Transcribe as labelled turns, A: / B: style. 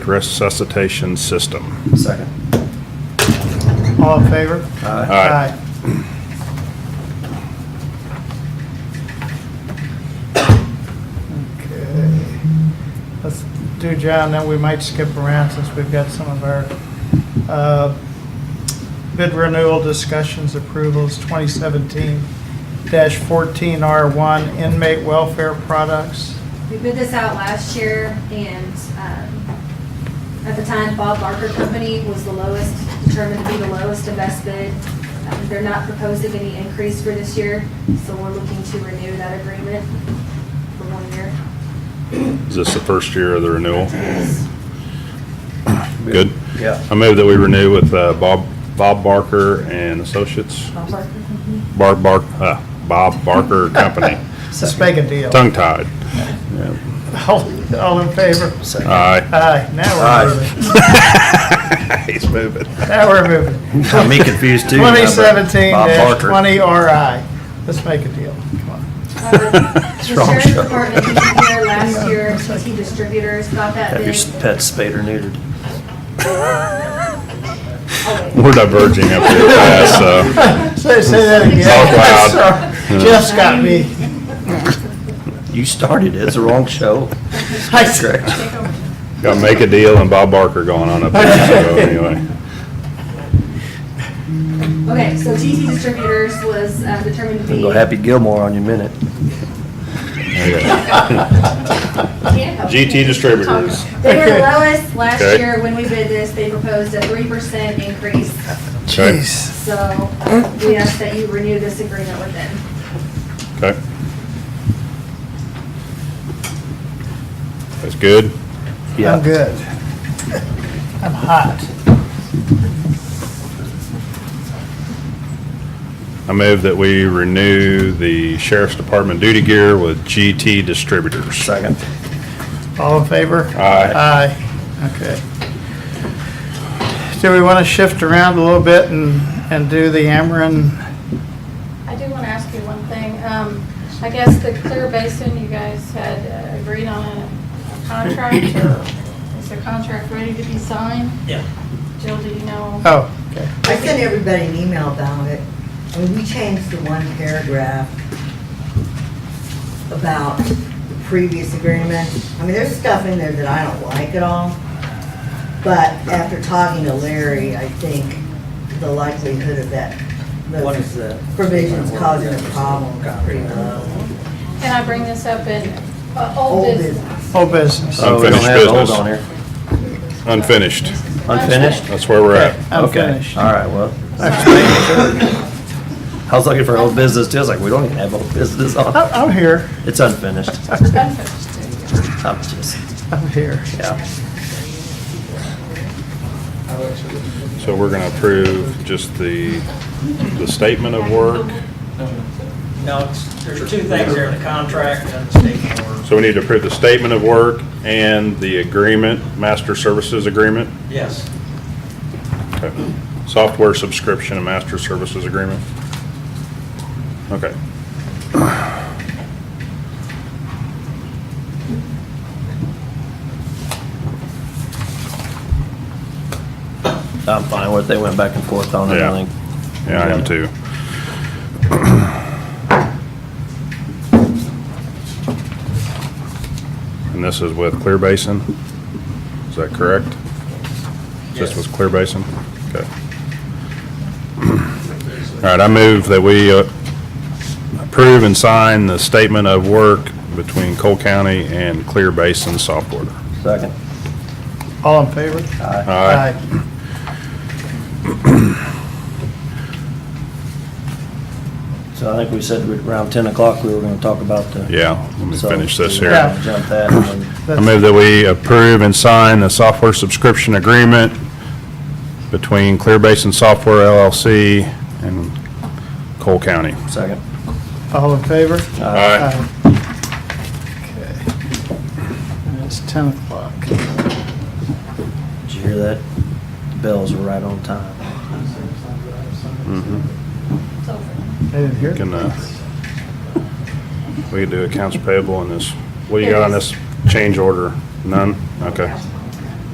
A: resuscitation system.
B: Second.
C: All in favor?
A: Aye.
C: Okay. Let's do John, then we might skip around since we've got some of our uh, bid renewal discussions, approvals, 2017-14R1 inmate welfare products.
D: We bid this out last year and um, at the time Bob Barker Company was the lowest, determined to be the lowest and best bid. Um, They're not proposing any increase for this year, so we're looking to renew that agreement for one year.
A: Is this the first year of the renewal? Good.
B: Yeah.
A: I move that we renew with uh, Bob, Bob Barker and Associates,
D: Bob Barker Company.
A: Barb Bark, uh, Bob Barker Company,
C: Let's make a deal.
A: tongue tied.
C: All all in favor?
B: Second.
A: Aye.
C: Aye, now
B: Aye.
C: we're moving.
A: He's moving.
C: Now we're moving.
B: Got me confused too. remember?
C: 2017
B: Bob Barker.
C: 20 RI. Let's make a deal. Come on.
D: Uh, The
B: wrong
D: sheriff's
B: show.
D: department was here last year, TT Distributors got that
B: Have your
D: bid.
B: s- pet spayed or neutered.
D: Oh, wait.
A: We're diverging up here fast, so.
C: Say, say that again.
A: Talk loud.
C: Sorry. Jeff's got me.
B: You started it. It's the wrong show.
C: I-
B: Correct.
D: Take over.
A: Got Make a Deal and Bob Barker going on up there, so anyway.
D: Okay, so TT Distributors was uh, determined to be.
B: Go Happy Gilmore on your minute.
A: Okay.
D: Can't help
A: GT
D: it.
A: Distributors.
D: They were the lowest last
A: Okay.
D: year when we bid this, they proposed a three percent increase,
A: Okay.
D: so uh, we ask that you renew this agreement with them.
A: Okay. That's good.
C: I'm
B: Yeah.
C: good. I'm hot.
A: I move that we renew the sheriff's department duty gear with GT Distributors.
B: Second.
C: All in favor?
A: Aye.
C: Aye, okay. Do we want to shift around a little bit and, and do the Ameren?
E: I do want to ask you one thing. Um, I guess the Clear Basin, you guys had uh, agreed on a a contract, or is the contract ready to be signed?
F: Yeah.
E: Jill, do you know?
C: Oh, okay.
G: I sent everybody an email about it, and we changed the one paragraph about the previous agreement. I mean, there's stuff in there that I don't like at all, but after talking to Larry, I think the likelihood of that,
F: What is
G: those
F: the?
G: provisions causing a problem is pretty low.
E: Can I bring this up in uh, old
G: Old
E: business?
C: Old business.
B: Oh, we don't
A: Unfinished
B: have old
A: business.
B: on here.
A: Unfinished.
B: Unfinished?
A: That's where we're at.
C: I'm
B: Okay.
C: finished.
B: All right, well. I was looking for old business too. I was like, we don't even have old business
C: I'm,
B: on.
C: Oh, I'm here.
B: It's unfinished. I'm just,
C: I'm here.
B: yeah.
A: So we're gonna approve just the, the statement of work.
F: No, it's- there's two things there, the contract and the state board.
A: So we need to approve the statement of work and the agreement, master services agreement.
F: Yes,
A: Okay. Software subscription and master services agreement. Okay.
B: I'm fine with it. They went back and forth on it,
A: Yeah.
B: I think.
A: Yeah, I am too. And this is with Clear Basin? Is that correct? This
F: Yes.
A: was Clear Basin? Okay. All right, I move that we uh, approve and sign the statement of work between Cole County and Clear Basin Software.
B: Second.
C: All in favor?
B: Aye.
A: Aye.
B: So I think we said around 10 o'clock, we were going to talk about the.
A: Yeah, let me
B: So,
A: finish this
B: we're
A: here.
B: gonna Jump that. and then-
A: I move that we approve and sign the software subscription agreement between Clear Basin Software LLC and Cole County.
B: Second.
C: All in favor?
A: Aye.
C: Um, Okay. And It's 10 o'clock.
B: Did you hear that? The Bells were right on time.
E: It's over.
C: I didn't hear.
A: Can, uh, we can do accounts payable on this. What do you got on this change order? None? Okay.